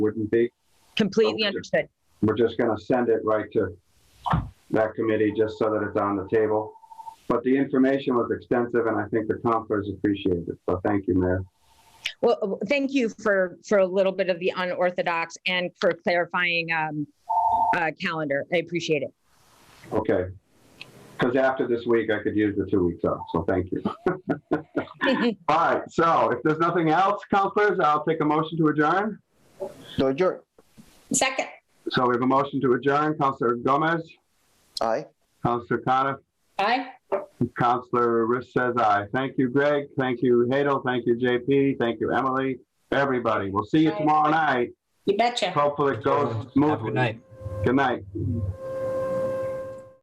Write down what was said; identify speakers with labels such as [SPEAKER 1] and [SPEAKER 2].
[SPEAKER 1] wouldn't be.
[SPEAKER 2] Completely
[SPEAKER 1] Okay.
[SPEAKER 2] understood.
[SPEAKER 1] We're just gonna send it right to that committee, just so that it's on the table. But the information was extensive, and I think the counselors appreciate it, so thank you, Mayor.
[SPEAKER 2] Well, uh, thank you for, for a little bit of the unorthodox and for clarifying um, uh, calendar. I appreciate it.
[SPEAKER 1] Okay. Because after this week, I could use the two weeks off, so thank you. All right, so if there's nothing else, counselors, I'll take a motion to adjourn.
[SPEAKER 3] So adjourn.
[SPEAKER 4] Second,
[SPEAKER 1] So we have a motion to adjourn, Counselor Gomez,
[SPEAKER 3] Aye.
[SPEAKER 1] Counselor Coniff,
[SPEAKER 4] aye.
[SPEAKER 1] Counselor Riss says aye. Thank you, Greg. Thank you, Hadel. Thank you, JP. Thank you, Emily. Everybody, we'll see you tomorrow night.
[SPEAKER 4] You betcha.
[SPEAKER 1] Hopefully it goes
[SPEAKER 5] Have a
[SPEAKER 1] smoothly.
[SPEAKER 5] good night.
[SPEAKER 1] Good night.